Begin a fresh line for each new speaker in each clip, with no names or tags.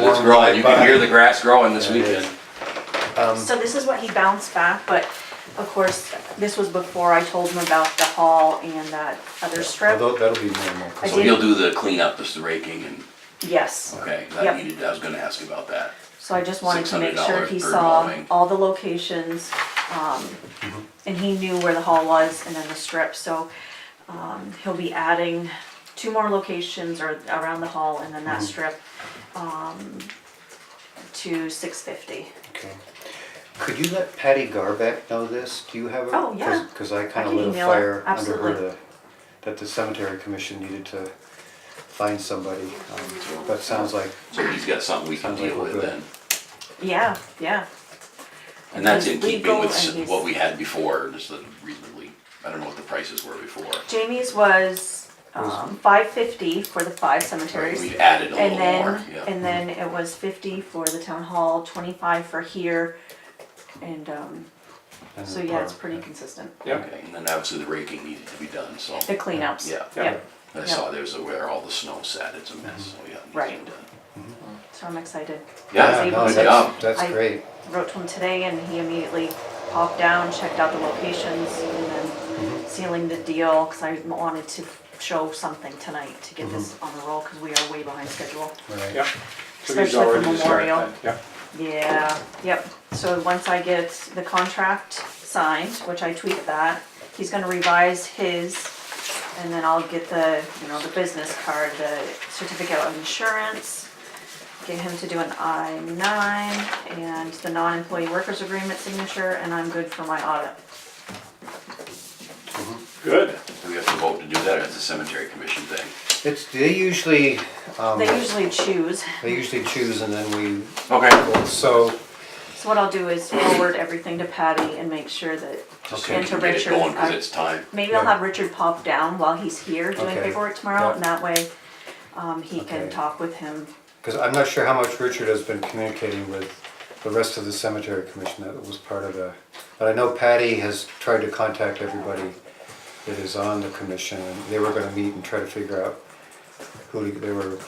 grass growing, you can hear the grass growing this
Yeah, it
weekend.
Um,
So this is what he bounced back, but of course, this was before I told him about the hall and that other strip.
although that'll be normal. 'cause
I
So
did-
you'll do the cleanup, just the raking and,
Yes,
okay,
Yep.
that needed, I was gonna ask about that.
so I just wanted to make sure
$600
he
per
saw
mowing.
all the locations, um, and he knew where the hall was and then the strip, so, um, he'll be adding two more locations or around the hall and then that strip, um, to six fifty.
Okay. Could you let Patty Garbeck know this? Do you have a?
Oh, yeah.
Because I
I
kind of
can
lit a
email her.
fire under her
Absolutely.
to- that the cemetery commission needed to find somebody. Um, That sounds like,
So he's got something we can
Sounds like
deal
we're
with
good.
then.
Yeah, yeah,
And that's in
He's
keeping
legal
with
and
s-
he's-
what we had before, just the reasonably, I don't know what the prices were before.
Jamie's was, um, five fifty for the five cemeteries.
We've added a
And
little more,
then,
Oh, yeah.
and then it was fifty for the town hall, twenty-five for here, and, um,
and
so
the
yeah, it's
park.
pretty consistent.
Yeah.
Okay, and then obviously the raking needed to be done, so.
The cleanups.
Yeah.
Yep,
I saw there's a- where all the snow sat, it's a mess, so uh, yeah. it needs to be
Right.
done.
so I'm excited.
Yeah,
Yeah,
Same
no,
as
good
that.
job.
that's, that's
I-
great.
Wrote to him today and he immediately popped down, checked out the locations, and then
Mm-hmm.
sealing the deal, cause I wanted to show something tonight to get
Mm-hmm.
this on the roll, cause we are way behind schedule.
Right.
Yeah. So he's
Especially for
already started
Memorial.
then, Yeah.
Yeah, yep, so once I get the contract signed, which I tweeted that, he's gonna revise his, and then I'll get the, you know, the business card, the certificate of insurance, get him to do an I nine, and the non-employee workers agreement signature, and I'm good for my audit.
Good.
We have to vote to do that, or it's a cemetery commission thing.
It's, they usually, um,
They usually choose,
they usually choose and then
Okay.
we, so,
so what I'll do is forward everything to Patty and make sure that,
Just so
and
we
to
can get it
Richard.
going, cause
I-
it's time.
Maybe I'll
Yeah.
have Richard pop down while he's here doing
Okay.
paperwork tomorrow,
Yeah.
and that way, um, he can
Okay.
talk with him.
because I'm not sure how much Richard has been communicating with the rest of the cemetery commission that was part of the, but I know Patty has tried to contact everybody that is on the commission, and they were gonna meet and try to figure out who, to- they were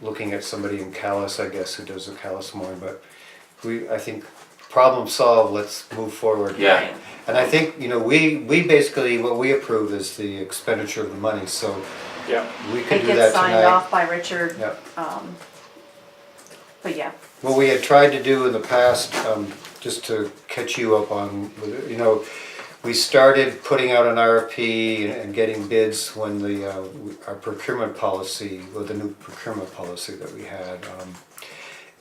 looking at somebody in Callis, I guess, who does the Callis mowing, but we, I think, problem solved, let's move forward.
Yeah.
And I think, you know, we, we basically, what we approve is the expenditure of the money, so
Yeah.
we could
It
do that
gets signed
tonight.
off by Richard, um,
Yep.
but yeah,
What we had tried to do in the past, um, just to catch you up on, you know, we started putting out an RFP and- and getting bids when the, uh, our procurement policy, or the new procurement policy that we had, um,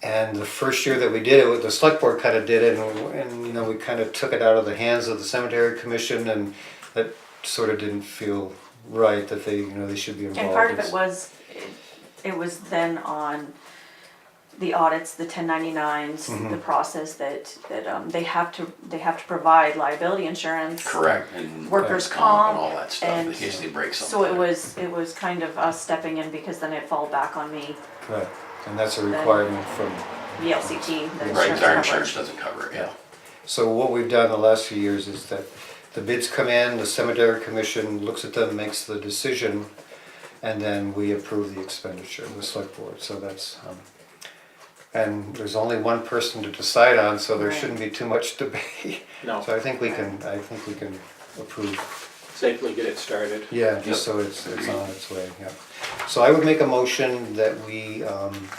and the first year that we did it, the select board kind of did it, and, and, you know, we kind of took it out of the hands of the cemetery commission, and that sort of didn't feel right, that they, you know, they should be involved.
and part of it
It's-
was, it- it was then on the audits, the ten ninety-nines,
Mm-hmm.
the process that, that, um, they have to, they have to provide liability insurance.
Correct, and.
Workers'
And
comp
all that stuff, in
and-
case they break something.
So it was, it was kind of us stepping in because then it fall back on me,
Right, and that's a requirement from
the LCT, the
Right,
insurance
our
coverage.
insurance doesn't cover it, yeah.
So what we've done the last few years is that the bids come in, the cemetery commission looks at them, makes the decision, and then we approve the expenditure, the select board, so that's, um, and there's only one person to decide on, so there
Right.
shouldn't be too much debate.
No.
So I think we can, I think we can approve,
Safely get it started.
yeah, just so it's, it's on its way, yeah. So I would make a motion that we, um,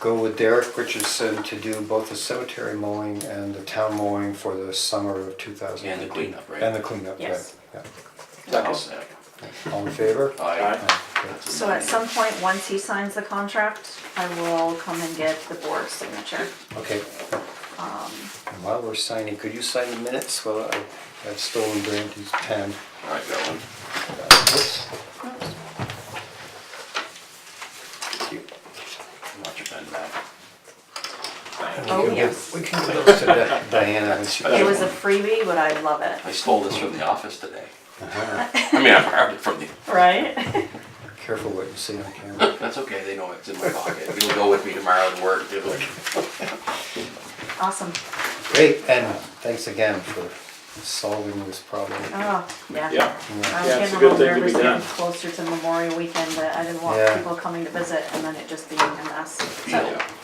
go with Derek Richardson to do both the cemetery mowing and the town mowing for the summer of two thousand.
And the cleanup, right?
And the cleanup, right,
Yes.
yeah.
Second.
All in favor?
Aye.
Aye.
Okay.
So at some point, once he signs the contract, I will come and get the board's signature.
Okay.
Um,
And While we're signing, could you sign the minutes? Well, I- I've stolen Brandy's pen.
All right, got one.
Oops. Thank you.
Watch your pen back.
And we
Oh,
can give-
yes.
We can give those to Di- Diana when she.
It was a freebie, but I love it.
I stole this from the office today. I mean, I borrowed it from the,
Right?
Careful what you say on camera.
that's okay, they know it's in my pocket. It'll go with me tomorrow to work, it'll,
Awesome.
Great, and thanks again for solving this problem.
Oh, yeah.
Yeah.
I was
Yeah, it's
getting
a
a
good
little
thing to be
nervous getting
done.
closer to Memorial Weekend, but I didn't want
Yeah.
people coming to visit and then it just being a mess. So-
deal.